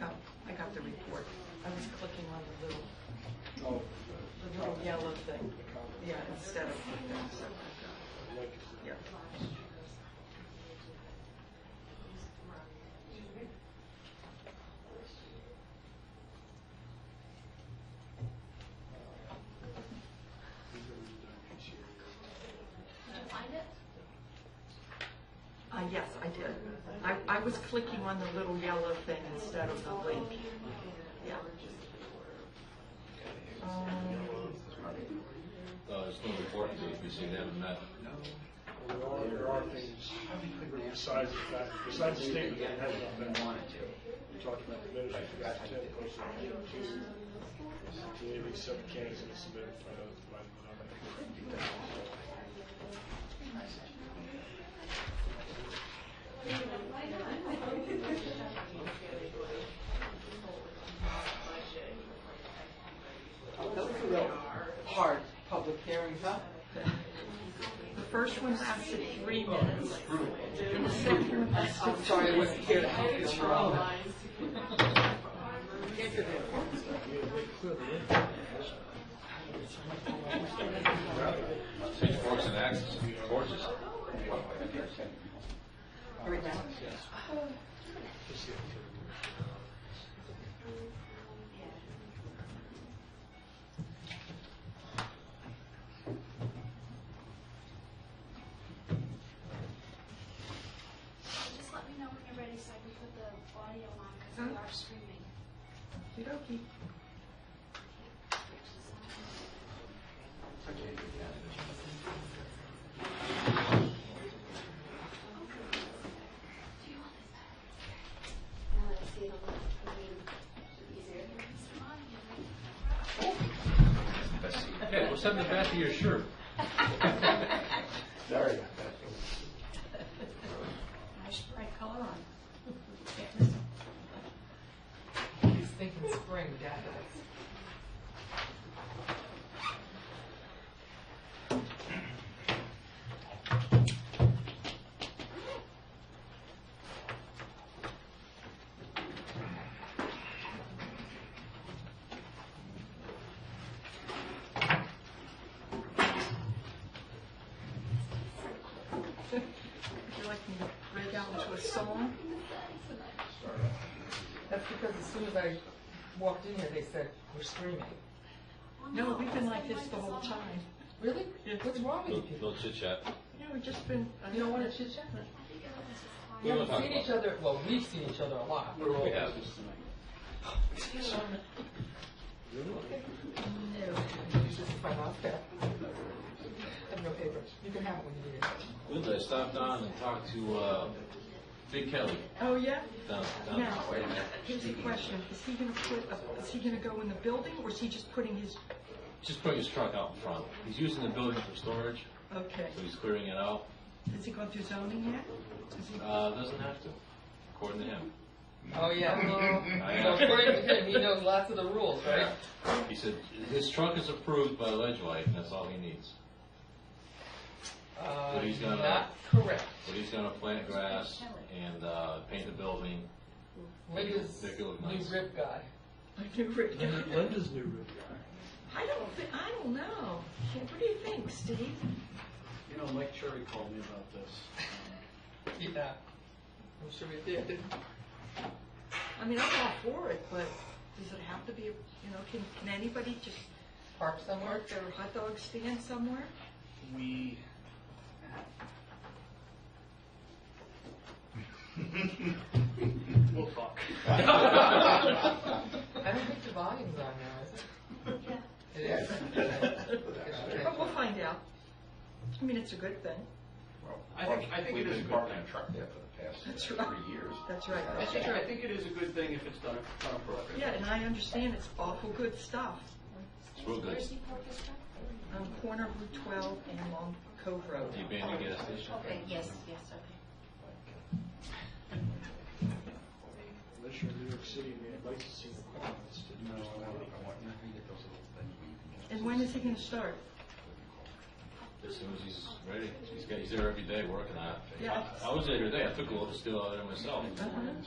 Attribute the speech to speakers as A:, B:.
A: Oh, the report. I was clicking on the little, the little yellow thing. Yeah, instead of the thing, so. Yeah. Uh, yes, I did. I, I was clicking on the little yellow thing instead of the link. Yeah. Um,
B: Uh, it's not important to if we see them met.
C: There are, there are things besides the fact, besides the statement that has not been wanted to. We talked about the ministry, we got ten personnel, two, maybe seven candidates in the submitted by the, by the nominee.
D: Those are real hard public hearings, huh?
A: The first one lasted three minutes. The second one lasted
D: I'm sorry, I wasn't here to help you.
B: Six forks and axes, horses.
D: Right now.
E: Just let me know when you're ready so I can put the audio on because we are streaming.
A: Okey-dokey.
B: Hey, what's on the back of your shirt?
C: Sorry about that.
F: Nice bright color on. Can't miss 'em.
G: He's thinking spring, Dad is.
A: Would you like me to break out into a song?
G: That's because as soon as I walked in here, they said, we're streaming.
A: No, we've been like this the whole time.
G: Really? What's wrong with you
B: Don't
G: people?
B: don't chit chat.
A: Yeah, we've just been. uh,
G: You don't want to chit chat? We
B: don't
G: haven't
B: talk
G: seen
B: about
G: each other, well, we've seen each other a lot. We're all-
B: We have.
G: This is my last pair. I have no paper. You can have it when you need it.
B: Linda, I stopped on and talked to, uh, Big Kelly
A: Oh, yeah?
B: down, down.
A: Now, here's the question. Is he gonna put, a- is he gonna go in the building or is he just putting his,
B: Just putting his truck out in front. He's using the building for storage,
A: okay.
B: so he's clearing it out.
A: Has he gone through zoning yet? Is he,
B: Uh, doesn't have to, according to him.
G: Oh, yeah.
B: I
G: So
B: know.
G: according to him, he knows lots of the rules, right?
B: He said, his truck is approved by Ledgely, and that's all he needs.
G: Uh,
B: He's gonna-
G: not correct.
B: But he's gonna plant grass and, uh, paint the building.
G: Linda's
B: Make it look
G: new
B: nice.
G: rip guy.
A: I knew Rick.
C: Linda's new room.
A: I don't thi, I don't know. What do you think, Steve?
H: You know, Mike Cherry called me about this.
G: Yeah. I'm sure we did.
A: I mean, I'm all for it, but does it have to be, you know, can, can anybody just
G: Park somewhere.
A: park their hot dog stand somewhere?
H: We, we'll talk.
G: I don't think the volume's on now, is it? It is.
A: But we'll find out. I mean, it's a good thing.
H: I think, I think it is a good thing.
A: That's right. That's right.
H: I think, I think it is a good thing if it's done, done appropriately.
A: Yeah, and I understand it's awful good stuff.
B: It's real good.
E: Where's he focused on?
A: On Um, corner of Route 12 and along Cove Road.
B: Do you ban the gas station?
F: Okay, yes, yes, okay.
C: Unless you're in New York City, and you have licensing requirements. No, I want,
A: And when is he going to start?
B: As soon as he's ready. He's got, he's there every day working on it.
A: Yeah. Oh. Uh-huh.
B: I was there today. I took a little steel out of there myself.